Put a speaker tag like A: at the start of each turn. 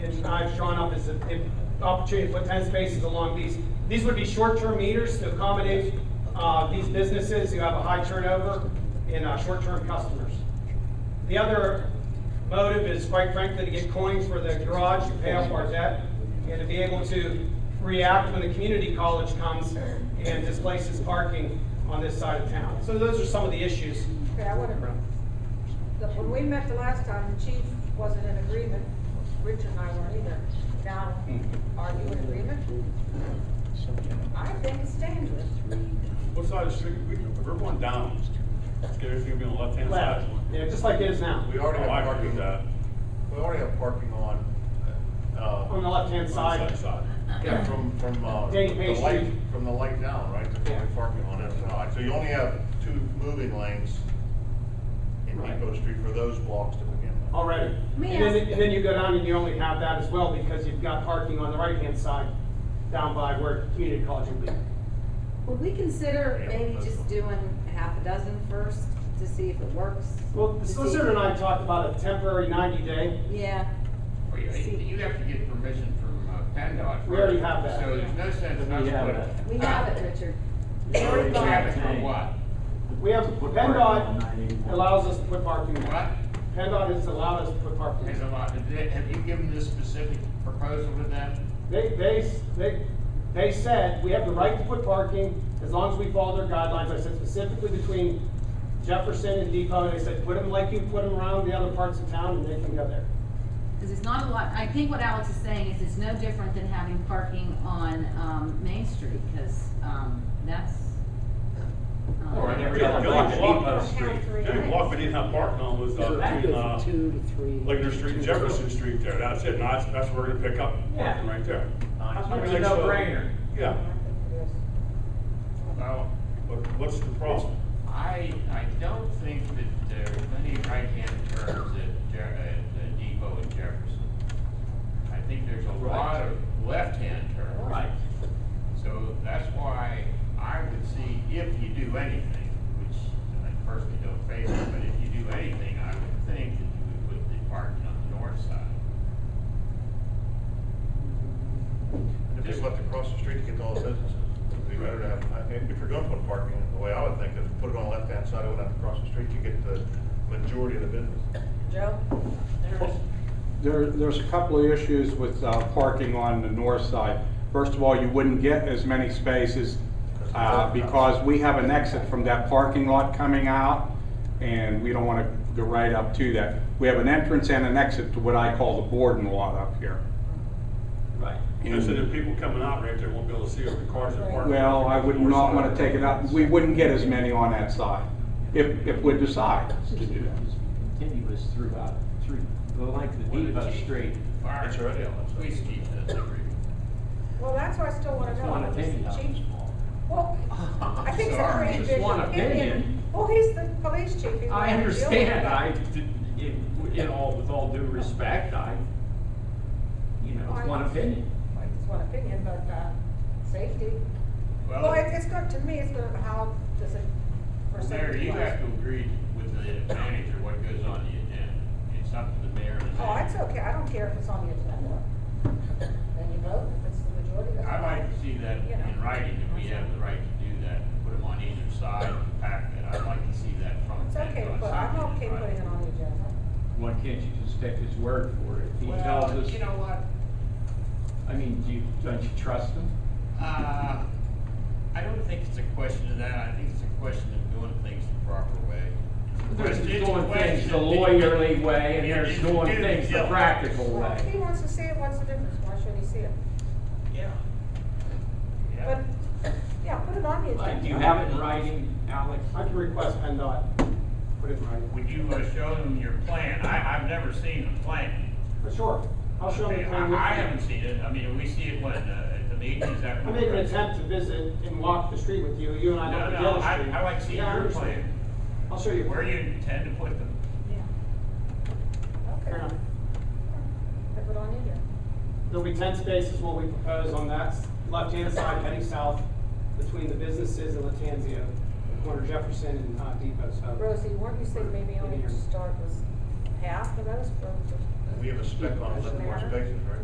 A: I've drawn up is if, if the opportunity to put ten spaces along these, these would be short-term meters to accommodate, uh, these businesses who have a high turnover in, uh, short-term customers. The other motive is quite frankly to get coins for the garage to pay off our debt and to be able to react when the community college comes and displaces parking on this side of town. So those are some of the issues.
B: Okay, I wanna, the- when we met the last time, the chief wasn't in agreement, Rich and I weren't either. Now, are you in agreement? I think it's dangerous.
C: What side of the street, we, we're going down. There's gonna be on the left-hand side.
A: Left, yeah, just like it is now,
D: We already
C: Oh,
D: have
C: I agree with
D: parking,
C: that.
D: we already have parking on,
A: on
D: uh,
A: the left-hand side.
C: Side.
D: yeah, from, from, uh,
A: Dang, Main
D: the light,
A: Street.
D: from the light down, right? There's
A: Yeah.
D: only parking on that side, so you only have two moving lanes in
A: Right.
D: Depot Street for those blocks to begin with.
A: already.
B: May
A: And then,
B: I-
A: and then you go down and you only have that as well because you've got parking on the right-hand side down by where community college would be.
E: Would we consider maybe just doing half a dozen first to see if it works?
A: Well, the
E: To see-
A: solicitor and I talked about a temporary ninety-day.
E: Yeah,
F: Well, you, you have to get permission from uh, PennDOT.
A: We already
F: first,
A: have that.
F: So there's no sense in us
G: We have
F: putting.
G: that.
E: we have it, Richard.
F: We already
G: We
F: have it
G: have
F: for
G: it.
F: what?
A: We have,
G: Put parking on
A: PennDOT
G: 91.
A: allows us to put parking.
F: What?
A: PennDOT has allowed us to put parking.
F: Has a lot, did they- have you given this specific proposal to them?
A: They, they, they, they said, we have the right to put parking as long as we follow their guidelines. I said specifically between Jefferson and Depot, they said, put them like you put them around the other parts of town and they can go there.
H: Because it's not a lot, I think what Alex is saying is it's no different than having parking on, um, Main Street, because, um, that's. um,
F: Or in every
C: The
F: other
C: only
F: block.
C: block on the
B: Count
C: street,
B: three
C: the only
B: lanes.
C: block we didn't have parking on was,
I: So
C: uh,
I: that
C: between,
I: goes
C: uh,
I: two to three.
C: Ligonier Street, and
I: two to
C: Jefferson
I: three.
C: Street there. That's it. Now, that's, that's where we're gonna pick up
A: Yeah.
C: parking right there.
A: I think it's a
C: Everything's full.
A: no-brainer.
C: Yeah.
B: I think it is.
F: Well,
C: But what's the problem?
F: I, I don't think that there are many right-hand turns at, Je- at Depot and Jefferson. I think there's a lot of left-hand turns.
G: Right.
F: So that's why I would see, if you do anything, which I personally don't favor, but if you do anything, I would think that you would put the parking on the north side.
D: And just let them cross the street to get to all the businesses. It'd be better to have, I think, if you're gonna put parking, the way I would think is put it on the left-hand side, it would have to cross the street to get the majority of the business.
B: Joe? There's.
J: There, there's a couple of issues with uh, parking on the north side. First of all, you wouldn't get as many spaces uh, because we have an exit from that parking lot coming out, and we don't want to go right up to that. We have an entrance and an exit to what I call the Borden lot up here.
C: Right. And so the people coming out right there won't be able to see over the cars that are parked.
J: Well, I would not want to take it out, we wouldn't get as many on that side, if, if we decide
G: This
J: to
G: is
J: do that.
G: Continuous throughout, through the length of
F: Well,
G: the Depot
F: the chief-
G: Street.
F: Fire,
D: That's right.
F: police chief doesn't agree with that.
B: Well, that's why I still wanna
G: It's
B: know.
G: one
B: what is
G: opinion.
B: the chief- Well, I think it's a
F: Sorry,
B: great
G: just
B: vision.
G: one
B: It- it-
G: opinion.
B: Well, he's the police chief. He's
G: I
B: the one who's dealing with
G: understand,
B: it.
G: I, did- in, in all, with all due respect, I, you know, it's one opinion.
B: Well, It's one opinion, but, uh, safety.
F: Well,
B: Well, it- it's good, to me, it's good, how does it, for
F: Well, Mayor,
B: safety
F: you have
B: wise?
F: to agree with the manager what goes on the agenda. It's up to the mayor and the
B: Oh, it's
F: manager.
B: okay, I don't care if it's on the agenda. Then you vote, if it's the majority. that's
F: I
B: fine.
F: like to see that
B: You know.
F: in writing, that we have the right to do that, put them on either side and pack that. I'd like to see that from.
B: It's okay,
F: Pentagon
B: but I'm
F: something in
B: okay putting it
F: writing.
B: on the agenda.
G: Why can't you just take his word for it? He tells
F: Well,
G: us,
F: you know what?
G: I mean, do you, don't you trust him?
F: Uh, I don't think it's a question of that. I think it's a question of doing things the proper way. It's a
G: There's
F: question- it's a
G: doing things the
F: question-
G: lawyerly way and there's
F: It's
G: doing
F: due
G: things the
F: diligence.
G: practical
B: Well, if he
G: way.
B: wants to see it, what's the difference, why should he see it?
F: Yeah.
B: But,
F: Yeah.
B: yeah, put it on the
G: Like,
B: agenda.
G: do you have it in writing, Alex?
A: I can request PennDOT, put it in writing.
F: Would you uh, show them your plan? I, I've never seen the plan.
A: For sure, I'll show them. the plan.
F: I I haven't seen it. I mean, we see it when, uh, at the meetings after.
A: I made an attempt to visit and walk the street with you, you and I
F: No,
A: don't
F: no,
A: go
F: I,
A: the street.
F: I like to see
A: Yeah, I
F: your
A: understand.
F: plan,
A: I'll show you.
F: where you intend to put them.
B: Yeah.
A: Fair
B: Okay,
A: enough.
B: put it on the agenda.
A: There'll be ten spaces what we propose on that s- left-hand side heading south between the businesses and Latanzio, corner Jefferson and uh, Depot, so.
B: Rosie, weren't you saying maybe only to start with half of those for?
D: We have a spec on it, more spaces, right?